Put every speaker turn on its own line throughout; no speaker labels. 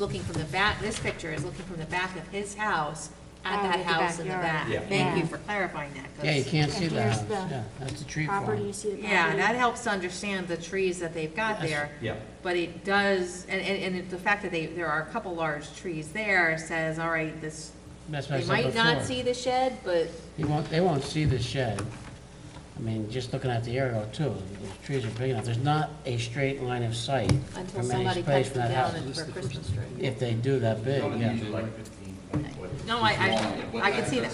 looking from the back, this picture is looking from the back of his house at
Oh,
that
with the
house in the back.
backyard.
Yeah.
Thank you
Yeah.
for clarifying that. 'cause-
Yeah, you can't see
And
the
here's
house,
the
yeah, that's the tree
Property, you
farm.
see the property?
Yeah, that helps understand the trees that they've got
That's-
there.
yeah.
But it does, and, and, and it- the fact that they, there are a couple large trees there says, all right, this,
That's what I
they
said
might not
before.
see the shed, but
They won't, they won't see the shed. I mean, just looking at the aerial too, the trees are big enough, there's not a straight line of sight
until
from any
somebody
space
cuts
from
them
that
down
house.
and- for Christmas tree.
If they do that big, yeah.
No, I- I- I can see that.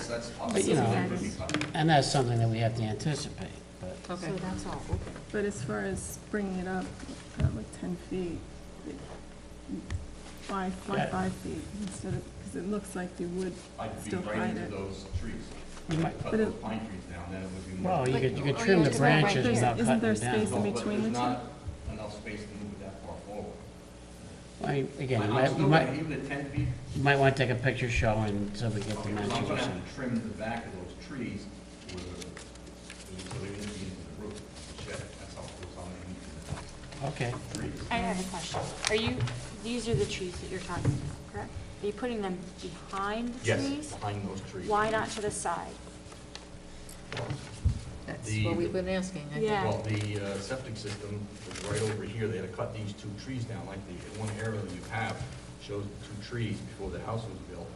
But, you know, And that's something that we have to anticipate, but.
Okay.
So that's all open.
But as far as bringing it up, uh, like ten feet, it- why, why
Yeah.
five feet instead of, because it looks like they would
I'd be
still
right
hide
into
it.
those trees,
You might,
cut
But it-
those pine trees down, then it would be more.
well, you could, you could
Or you
trim the
just go right
branches
here.
without
Isn't
cutting
there
them down.
space in
No, but
between the
there's
two?
not Enough space to move it that far forward.
I mean, again,
I-
you
I'm
might, you
still gonna-
might,
Even at ten feet,
you might want to take a picture showing so we get the
okay, so I'm
dimensions or
gonna
something.
have to trim the back of those trees with, a- so they won't be into the roof, the shed, that's how close I'm gonna need
Okay,
to the trees.
I have a question. Are you, these are the trees that you're talking about, correct? Are you putting them behind the
Yes,
trees?
behind those trees.
Why not to the side?
That's
The-
what we've been asking, I think.
Yeah.
Well, the uh, septic system is right over here, they had to cut these two trees down, like the one area that you have shows the two trees before the house was built,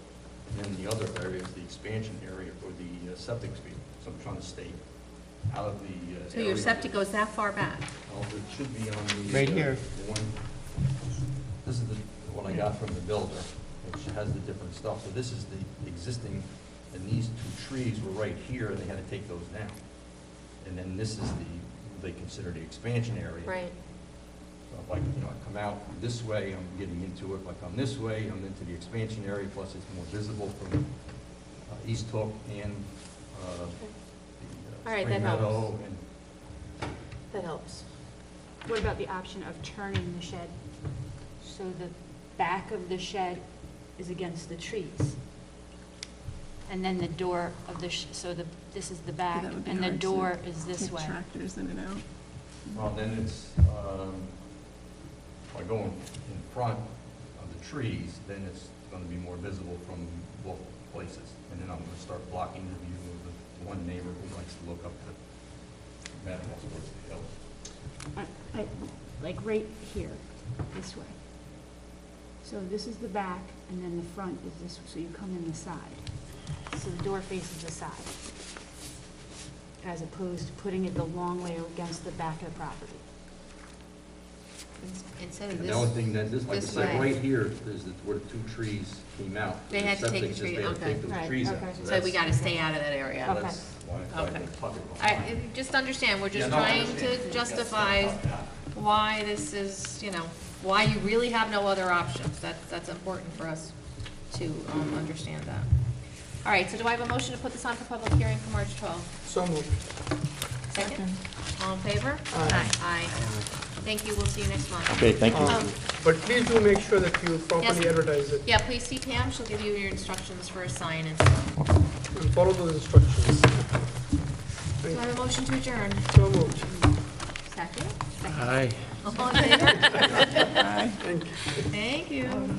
and then the other area is the expansion area for the uh, septic field, so I'm trying to stay out of the. uh,
So your
area.
septic goes that far back?
Well, it should be on the.
Right
uh,
here.
the one- This is the, one I got from the builder, which has the different stuff, so this is the existing, and these two trees were right here, and they had to take those down. And then this is the, they consider the expansion area.
Right.
So if I, you know, I come out this way, I'm getting into it, if I come this way, I'm into the expansion area, plus it's more visible from uh, East Hook and uh, the
All
uh,
right,
Spring
that helps.
Meadow and
That helps.
What about the option of turning the shed? So the back of the shed is against the trees? And then the door of the, sh- so the, this is the
But
back,
that would be
and the
hard to
door is this
keep
way.
Tractors in and out.
Well, then it's, um, by going in front of the trees, then it's gonna be more visible from both places. And then I'm gonna start blocking the view of the one neighbor who likes to look up to Madam Westwood's hill.
I- I- Like right here, this way. So this is the back, and then the front is this, so you come in the side. So the door faces the side, as opposed to putting it the long way against the back of the property.
Ins- Instead of
And the only
this,
thing that, this, like I
this
said,
way.
right here is the- where the two trees came out.
They had to take
Septic
the
just-
tree-
They had to
okay.
take
Right,
those trees out.
okay.
so we
that's-
gotta stay out of that area.
Okay.
That's why I
Okay.
plugged it.
I, it- just understand, we're
Yeah,
just
no, I
trying
understand.
to
Yes,
justify
yeah.
why this is, you know, why you really have no other options. That's, that's important for us to, um, understand that. All right, so do I have a motion to put this on for public hearing for March twelfth?
So moved.
Second? All in favor? Aye. Aye. Thank you, we'll see you next month.
Okay, thank
Um, But please do make sure that you properly
Yes.
advertise it
Yeah, please see Pam, she'll give you your instructions for a sign and stuff.
and follow those instructions.
Do I have a motion to adjourn?
So moved.
Second?
Aye.
All in favor? Thank you.